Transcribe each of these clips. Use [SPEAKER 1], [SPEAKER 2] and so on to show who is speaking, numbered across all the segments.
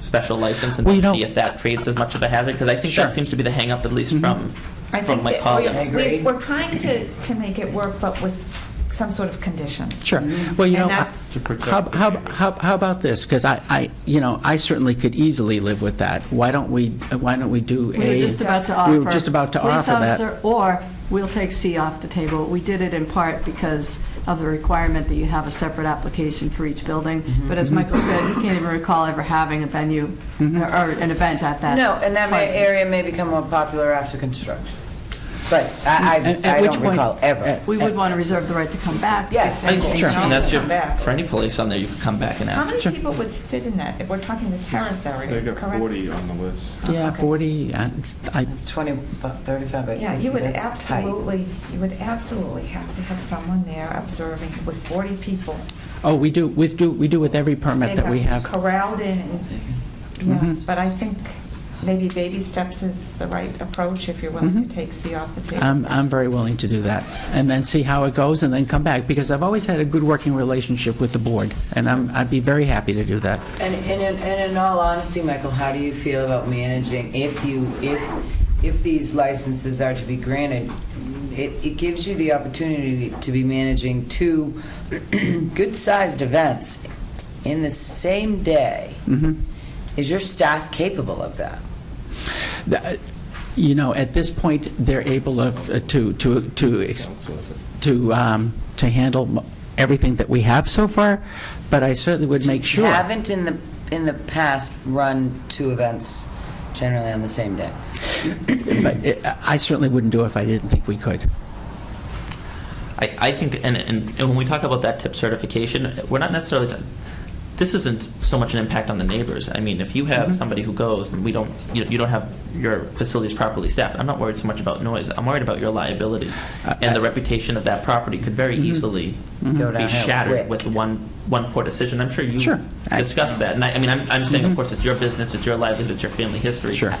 [SPEAKER 1] special license and
[SPEAKER 2] Well, you
[SPEAKER 1] then
[SPEAKER 2] know-
[SPEAKER 1] see if that creates as much of a hazard, because I think
[SPEAKER 2] Sure. Mm-hmm.
[SPEAKER 1] that seems to be the hangup, at least from,
[SPEAKER 3] I
[SPEAKER 1] from
[SPEAKER 3] think
[SPEAKER 1] my
[SPEAKER 3] that
[SPEAKER 1] colleagues.
[SPEAKER 3] we-
[SPEAKER 4] I agree.
[SPEAKER 3] we- We're trying to, to make it work, but with some sort of condition.
[SPEAKER 2] Sure.
[SPEAKER 5] Mm-hmm.
[SPEAKER 2] Well, you know,
[SPEAKER 3] And
[SPEAKER 2] how,
[SPEAKER 3] that's-
[SPEAKER 1] Mm-hmm. To protect
[SPEAKER 2] how,
[SPEAKER 1] the
[SPEAKER 2] how-
[SPEAKER 1] community.
[SPEAKER 2] how how about this? Because I, I, you know, I certainly could easily live with that. Why don't we, why don't we do a...
[SPEAKER 5] We were just about to offer.
[SPEAKER 2] We were just about to offer that.
[SPEAKER 5] Police officer, or we'll take C off the table. We did it in part because of the requirement that you have a separate application for each building.
[SPEAKER 2] Mm-hmm.
[SPEAKER 5] But as Michael said, he can't even recall ever having a venue
[SPEAKER 2] Mm-hmm.
[SPEAKER 5] or or an event at that.
[SPEAKER 4] No, and that may-
[SPEAKER 5] park.
[SPEAKER 4] area may become more popular after construction. But
[SPEAKER 2] At-
[SPEAKER 4] I, I
[SPEAKER 2] at
[SPEAKER 4] I
[SPEAKER 2] which
[SPEAKER 4] don't
[SPEAKER 2] point-
[SPEAKER 4] recall ever.
[SPEAKER 2] at-
[SPEAKER 5] We would want to reserve the right to come back. if
[SPEAKER 4] Yes,
[SPEAKER 5] anything
[SPEAKER 4] Sure.
[SPEAKER 5] changes.
[SPEAKER 1] And that's your,
[SPEAKER 4] Come back.
[SPEAKER 1] for any police on there, you could come back and
[SPEAKER 3] How
[SPEAKER 1] ask.
[SPEAKER 3] many
[SPEAKER 2] Sure.
[SPEAKER 3] people would sit in that? If We're talking the terrace area,
[SPEAKER 6] They
[SPEAKER 3] correct?
[SPEAKER 6] got 40 on the list.
[SPEAKER 5] Oh,
[SPEAKER 2] Yeah, 40, I- I,
[SPEAKER 4] It's 20, about 35 by 50.
[SPEAKER 3] Yeah, you would
[SPEAKER 4] that's tight.
[SPEAKER 3] absolutely, you would absolutely have to have someone there observing with 40 people.
[SPEAKER 2] oh, we do, we do, we do with every permit
[SPEAKER 3] They
[SPEAKER 2] that we
[SPEAKER 3] got
[SPEAKER 2] have.
[SPEAKER 3] Corralled in, and- yeah,
[SPEAKER 2] Mhm.
[SPEAKER 3] but I think maybe baby steps is the right approach if you're willing
[SPEAKER 2] Mhm.
[SPEAKER 3] to take C off the table.
[SPEAKER 2] I'm, I'm very willing to do that, and then see how it goes, and then come back, because I've always had a good working relationship with the board, and I'm, I'd be very happy to do that.
[SPEAKER 4] And, and, in- and in all honesty, Michael, how do you feel about managing if you, if, if these licenses are to be granted? It, it gives you the opportunity to be managing two good-sized events in the same day.
[SPEAKER 2] Mhm.
[SPEAKER 4] Is your staff capable of that?
[SPEAKER 2] Th- You know, at this point, they're able of, uh, to, to, to, ex- to, um, to handle mo- everything that we have so far, but I certainly would make sure.
[SPEAKER 4] Haven't in the, in the past run two events generally on the same day.
[SPEAKER 2] But it- I certainly wouldn't do it if I didn't think we could.
[SPEAKER 1] I, I think, and, and, and when we talk about that tip certification, we're not necessarily, ta- this isn't so much an impact on the neighbors. I mean, if you have
[SPEAKER 2] Mm-hmm.
[SPEAKER 1] somebody who goes, and we don't, you, you don't have your facilities properly staffed, I'm not worried so much about noise, I'm worried about your liability.
[SPEAKER 2] I-
[SPEAKER 1] And the
[SPEAKER 2] Uh, I-
[SPEAKER 1] reputation of that property could very
[SPEAKER 2] Mhm.
[SPEAKER 1] easily
[SPEAKER 4] Go
[SPEAKER 1] be
[SPEAKER 4] downhill
[SPEAKER 1] shattered
[SPEAKER 4] quick.
[SPEAKER 1] with one, one poor decision. I'm sure you
[SPEAKER 2] Sure. I-
[SPEAKER 1] discussed that, and I, I mean, I'm, I'm saying,
[SPEAKER 2] Mhm.
[SPEAKER 1] of course, it's your business, it's your livelihood, it's your family history.
[SPEAKER 2] Sure.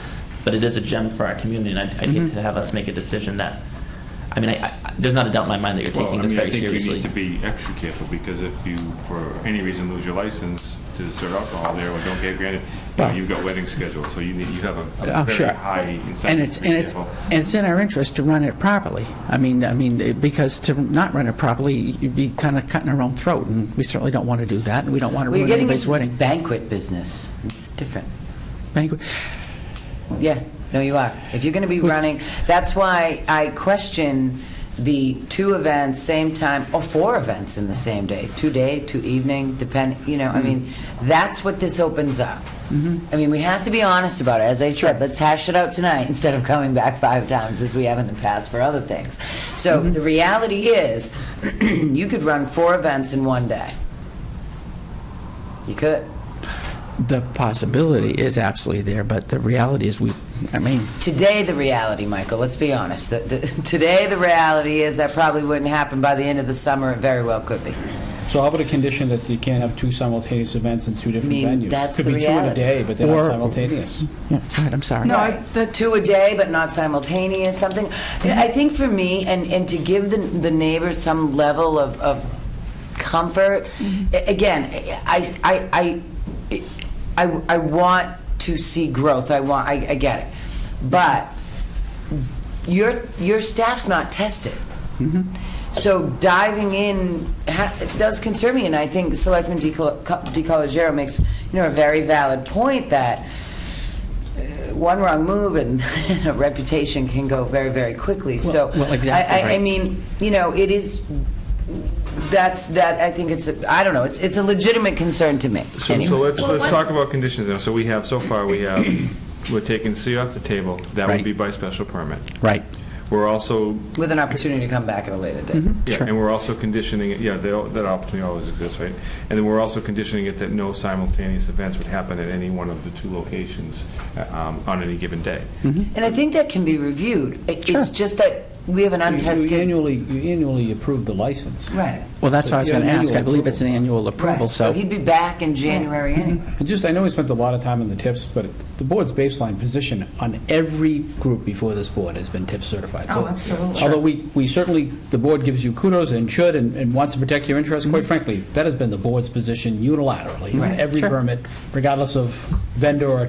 [SPEAKER 1] But it is a gem for our community, and I'd I'd hate
[SPEAKER 2] Mhm.
[SPEAKER 1] to have us make a decision that, I mean, I, I, there's not a doubt in my mind that you're
[SPEAKER 6] Well,
[SPEAKER 1] taking
[SPEAKER 6] I
[SPEAKER 1] this
[SPEAKER 6] mean, I
[SPEAKER 1] very
[SPEAKER 6] think you
[SPEAKER 1] seriously.
[SPEAKER 6] need to be extra careful, because if you, for any reason, lose your license to serve alcohol there, or don't get granted, you know,
[SPEAKER 2] Well-
[SPEAKER 6] you've got weddings scheduled, so you need, you have a-
[SPEAKER 2] Oh,
[SPEAKER 6] a
[SPEAKER 2] sure.
[SPEAKER 6] very high
[SPEAKER 2] And
[SPEAKER 6] incentive
[SPEAKER 2] it's,
[SPEAKER 6] to
[SPEAKER 2] and
[SPEAKER 6] be
[SPEAKER 2] it's,
[SPEAKER 6] careful.
[SPEAKER 2] and it's in our interest to run it properly. I mean, I mean, it- because to not run it properly, you'd be kind of cutting our own throat, and we certainly don't want to do that, and we don't want to
[SPEAKER 4] We're
[SPEAKER 2] ruin
[SPEAKER 4] getting
[SPEAKER 2] anybody's
[SPEAKER 4] into
[SPEAKER 2] wedding.
[SPEAKER 4] banquet business. It's different.
[SPEAKER 2] Banquet.
[SPEAKER 4] Yeah, no, you are. If you're going to be running, that's why I question the two events, same time, or four events in the same day, two day, two evening, depend, you know, I mean, that's what this opens up. I mean, we have to be honest about it. As I said, let's hash it out tonight instead of coming back five times as we have in the past for other things. So the reality is, you could run four events in one day. You could.
[SPEAKER 2] The possibility is absolutely there, but the reality is we, I mean,
[SPEAKER 4] today the reality, Michael, let's be honest. The, the, today the reality is that probably wouldn't happen by the end of the summer. It very well could be.
[SPEAKER 7] So how about a condition that you can't have two simultaneous events in two different
[SPEAKER 4] I mean,
[SPEAKER 7] venues?
[SPEAKER 4] that's the
[SPEAKER 7] Could be two in a
[SPEAKER 4] reality.
[SPEAKER 7] day, but they're not
[SPEAKER 2] Or-
[SPEAKER 7] simultaneous.
[SPEAKER 2] yeah, go ahead, I'm sorry.
[SPEAKER 5] No, I- the
[SPEAKER 4] Two a day, but not simultaneous, something. I think for me, and, and to give the, the neighbors some level of, of comfort,
[SPEAKER 5] Mm-hmm.
[SPEAKER 4] a- again, I, I, I, I, I want to see growth. I want, I, I get it. But your, your staff's not tested.
[SPEAKER 2] Mm-hmm.
[SPEAKER 4] So diving in ha- does concern me, and I think Selectman DeCollegiero makes, you know, a very valid point that uh, one wrong move and a reputation can go very, very quickly, so.
[SPEAKER 2] well, exactly
[SPEAKER 4] I- I- I
[SPEAKER 2] right.
[SPEAKER 4] mean, you know, it is, that's, that, I think it's, a- I don't know, it's it's a legitimate concern to me.
[SPEAKER 6] So,
[SPEAKER 4] Anyway.
[SPEAKER 6] so let's,
[SPEAKER 3] Well,
[SPEAKER 6] let's
[SPEAKER 3] what-
[SPEAKER 6] talk about conditions now. So we have, so far, we have, we're taking C off the table. That
[SPEAKER 2] Right.
[SPEAKER 6] would be by special permit.
[SPEAKER 2] Right.
[SPEAKER 6] We're also,
[SPEAKER 4] With an opportunity to come back at a later date.
[SPEAKER 6] yeah,
[SPEAKER 2] Sure.
[SPEAKER 6] and we're also conditioning, it. yeah, that that opportunity always exists, right? And then we're also conditioning it that no simultaneous events would happen at any one of the two locations uh, um, on any given day.
[SPEAKER 4] And I think that can be reviewed. It-
[SPEAKER 2] Sure.
[SPEAKER 4] It's just that We have an
[SPEAKER 7] You-
[SPEAKER 4] untested.
[SPEAKER 7] You annually, you annually approve the license.
[SPEAKER 4] Right.
[SPEAKER 2] Well, that's what I was going to
[SPEAKER 7] Yeah,
[SPEAKER 2] ask. I
[SPEAKER 7] annual
[SPEAKER 2] believe it's an
[SPEAKER 7] approval.
[SPEAKER 2] annual approval,
[SPEAKER 4] Right. So
[SPEAKER 2] so.
[SPEAKER 4] he'd be back in January anyway.
[SPEAKER 7] And just, I know we spent a lot of time on the tips, but the board's baseline position on every group before this board has been tip certified. So
[SPEAKER 3] Oh, absolutely.
[SPEAKER 7] Although we, we certainly, the board gives you kudos and should and, and wants to protect your interests,
[SPEAKER 4] Mm-hmm.
[SPEAKER 7] quite frankly, that has been the board's position unilaterally. on Every
[SPEAKER 2] Sure.
[SPEAKER 7] permit, regardless of vendor or